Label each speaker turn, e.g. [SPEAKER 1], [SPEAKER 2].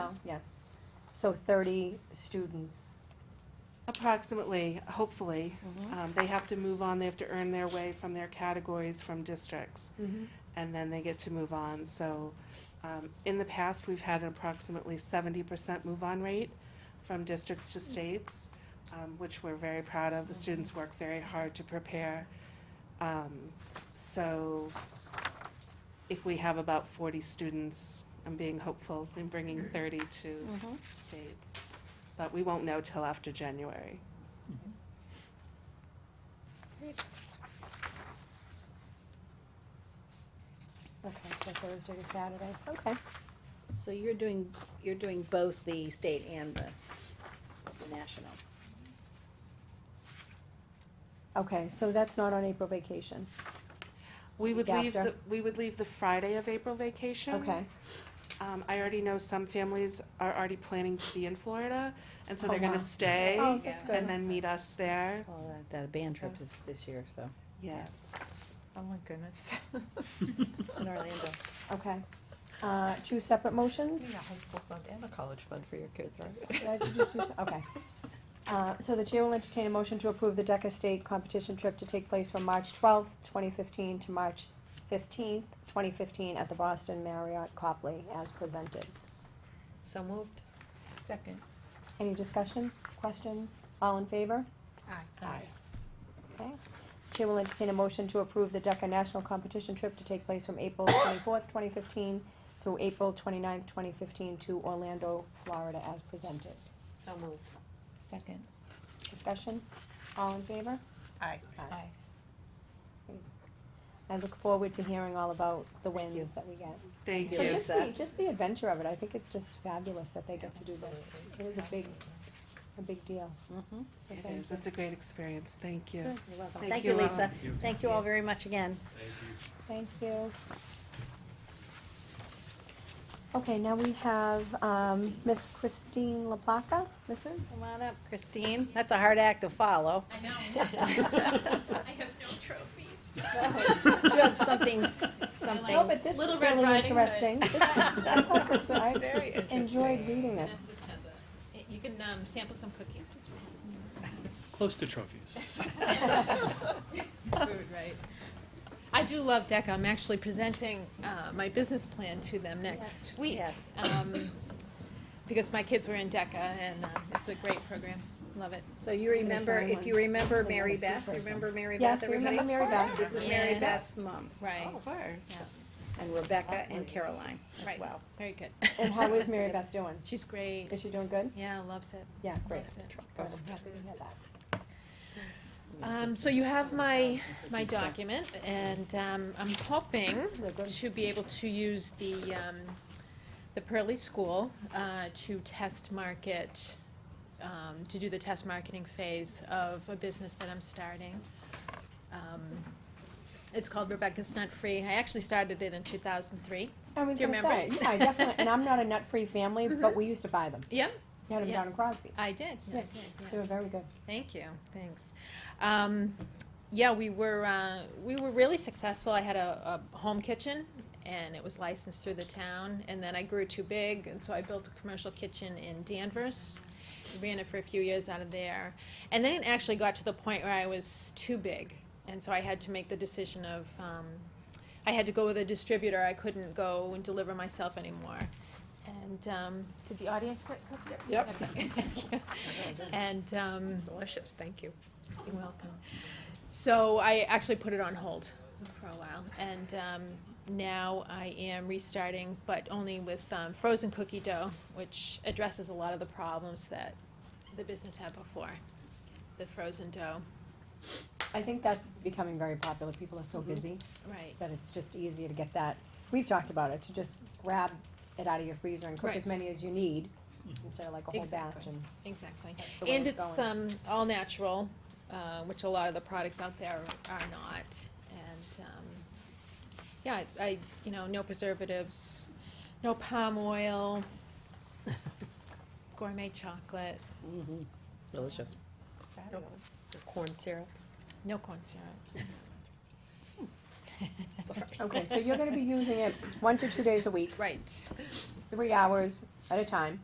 [SPEAKER 1] Yes.
[SPEAKER 2] Yeah. So thirty students.
[SPEAKER 1] Approximately, hopefully.
[SPEAKER 3] Mm-hmm.
[SPEAKER 1] Um, They have to move on, they have to earn their way from their categories from districts, and then they get to move on. So um, in the past, we've had an approximately seventy percent move-on rate from districts to states, um, which we're very proud of. The students work very hard to prepare. Um, So if we have about forty students, I'm being hopeful in bringing thirty to
[SPEAKER 3] Hmm.
[SPEAKER 1] states. But we won't know till after January.
[SPEAKER 2] Okay, so Thursday to Saturday, okay.
[SPEAKER 3] So you're doing, you're doing both the state and the the national.
[SPEAKER 2] Okay, so that's not on April vacation,
[SPEAKER 1] We would
[SPEAKER 2] Week
[SPEAKER 1] leave
[SPEAKER 2] after.
[SPEAKER 1] the, we would leave the Friday of April vacation.
[SPEAKER 2] okay.
[SPEAKER 1] Um, I already know some families are already planning to be in Florida, and so
[SPEAKER 2] Oh,
[SPEAKER 1] they're
[SPEAKER 2] wow.
[SPEAKER 1] gonna stay
[SPEAKER 2] Oh, that's
[SPEAKER 1] and
[SPEAKER 2] good.
[SPEAKER 1] then meet us there.
[SPEAKER 3] Well, that- that band trip
[SPEAKER 1] So-
[SPEAKER 3] is this year, so.
[SPEAKER 1] Yes.
[SPEAKER 4] Oh my goodness.
[SPEAKER 3] It's in Orlando.
[SPEAKER 2] Okay. Uh, two separate motions?
[SPEAKER 4] Yeah, high school fund and a college fund for your kids,
[SPEAKER 2] Did I
[SPEAKER 4] right?
[SPEAKER 2] do two se- Okay. Uh, so the chair will entertain a motion to approve the DECA state competition trip to take place from March twelfth, twenty fifteen to March fifteenth, twenty fifteen at the Boston Marriott Copley as presented.
[SPEAKER 3] So moved.
[SPEAKER 4] Second.
[SPEAKER 2] Any discussion, questions? All in favor?
[SPEAKER 4] Aye.
[SPEAKER 2] Okay. Chair will entertain a motion to approve the DECA National Competition Trip to take place from April twenty-fourth, twenty fifteen through April twenty-ninth, twenty fifteen to Orlando, Florida as presented.
[SPEAKER 3] So moved.
[SPEAKER 4] Second.
[SPEAKER 2] Discussion? All in favor?
[SPEAKER 3] Aye.
[SPEAKER 4] Aye.
[SPEAKER 2] I look forward to hearing all about the wins that we get.
[SPEAKER 1] Thank
[SPEAKER 2] But
[SPEAKER 1] you.
[SPEAKER 2] just the, just the adventure of it, I think it's just fabulous that they get to do this. It is a big, a big deal.
[SPEAKER 3] Mhm.
[SPEAKER 2] So
[SPEAKER 1] It
[SPEAKER 2] thank
[SPEAKER 1] is,
[SPEAKER 2] you.
[SPEAKER 1] it's a great experience, thank you.
[SPEAKER 3] You're welcome.
[SPEAKER 1] Thank
[SPEAKER 3] Thank you,
[SPEAKER 1] you all.
[SPEAKER 3] Lisa. Thank you all very much again.
[SPEAKER 2] Thank you. Okay, now we have, um, Miss Christine LaPlaca, Mrs.
[SPEAKER 3] Come on up, Christine. That's a hard act to follow.
[SPEAKER 5] I know. I have no trophies.
[SPEAKER 3] You have something, something.
[SPEAKER 2] Oh, but this
[SPEAKER 5] Little
[SPEAKER 2] was
[SPEAKER 5] Red
[SPEAKER 2] really
[SPEAKER 5] Riding Hood.
[SPEAKER 2] interesting. This was- I thought this was- I
[SPEAKER 4] Very interesting.
[SPEAKER 2] enjoyed reading this.
[SPEAKER 5] Vanessa said that. Y- You can um, sample some cookies.
[SPEAKER 6] It's close to trophies.
[SPEAKER 5] Food, right? I do love DECA. I'm actually presenting uh, my business plan to them next week.
[SPEAKER 3] Yes.
[SPEAKER 5] um, Because my kids were in DECA and um, it's a great program. Love it.
[SPEAKER 3] So you remember, if you remember Mary Beth, remember Mary Beth,
[SPEAKER 2] Yes, we
[SPEAKER 3] everybody?
[SPEAKER 2] remember Mary Beth.
[SPEAKER 3] This is Mary
[SPEAKER 5] Yeah.
[SPEAKER 3] Beth's mom,
[SPEAKER 5] Right,
[SPEAKER 4] Oh, word.
[SPEAKER 5] Yeah.
[SPEAKER 3] and Rebecca and Caroline as
[SPEAKER 5] Right.
[SPEAKER 3] well.
[SPEAKER 5] very good.
[SPEAKER 2] And how is Mary Beth doing?
[SPEAKER 5] She's great.
[SPEAKER 2] Is she doing good?
[SPEAKER 5] Yeah, loves it.
[SPEAKER 2] Yeah, great.
[SPEAKER 5] Loves it.
[SPEAKER 2] Good, I'm happy to hear that.
[SPEAKER 5] Um, so you have my, my document, and, um, I'm hoping
[SPEAKER 2] They're good.
[SPEAKER 5] to be able to use the, um, the Pearly School, uh, to test market, um, to do the test marketing phase of a business that I'm starting. Um, It's called Rebecca's Nut Free. I actually started it in two thousand three.
[SPEAKER 2] I was
[SPEAKER 5] Do you
[SPEAKER 2] gonna say,
[SPEAKER 5] remember? Mm-hmm.
[SPEAKER 2] yeah, I definitely, and I'm not a nut-free family, but we used to buy them.
[SPEAKER 5] Yeah,
[SPEAKER 2] We had them
[SPEAKER 5] Yeah.
[SPEAKER 2] down in Crosby's.
[SPEAKER 5] I did,
[SPEAKER 2] Yeah,
[SPEAKER 5] I did, yes.
[SPEAKER 2] They were very good.
[SPEAKER 5] Thank you. Thanks. Um, yeah, we were uh, we were really successful. I had a, a home kitchen, and it was licensed through the town. And then I grew too big, and so I built a commercial kitchen in Danvers. Ran it for a few years out of there, and then it actually got to the point where I was too big, and so I had to make the decision of um, I had to go with a distributor. I couldn't go and deliver myself anymore. And um, did the audience get cooked? Yep. and um,
[SPEAKER 4] Delicious, thank you.
[SPEAKER 5] you're welcome. So I actually put it on hold for a while, and um, now I am restarting, but only with um, frozen cookie dough, which addresses a lot of the problems that the business had before. The frozen dough,
[SPEAKER 2] I think that's becoming very popular. People are so
[SPEAKER 5] Mm-hmm.
[SPEAKER 2] busy
[SPEAKER 5] right?
[SPEAKER 2] that it's just easier to get that. We've talked about it, to just grab it out of your freezer and cook
[SPEAKER 5] Right.
[SPEAKER 2] as many as you need instead of like a whole batch.
[SPEAKER 5] Exactly.
[SPEAKER 2] And
[SPEAKER 5] Exactly.
[SPEAKER 2] that's the way
[SPEAKER 5] And
[SPEAKER 2] it's
[SPEAKER 5] it's
[SPEAKER 2] going.
[SPEAKER 5] um, all natural, uh, which a lot of the products out there are not. And, um, yeah, I- I, you know, no preservatives, no palm oil, gourmet chocolate,
[SPEAKER 3] Delicious.
[SPEAKER 5] um,
[SPEAKER 4] Fabulous.
[SPEAKER 3] Corn syrup.
[SPEAKER 5] no corn syrup.
[SPEAKER 2] Okay, so you're going to be using it one to two days a week,
[SPEAKER 5] Right,
[SPEAKER 2] three hours at a time.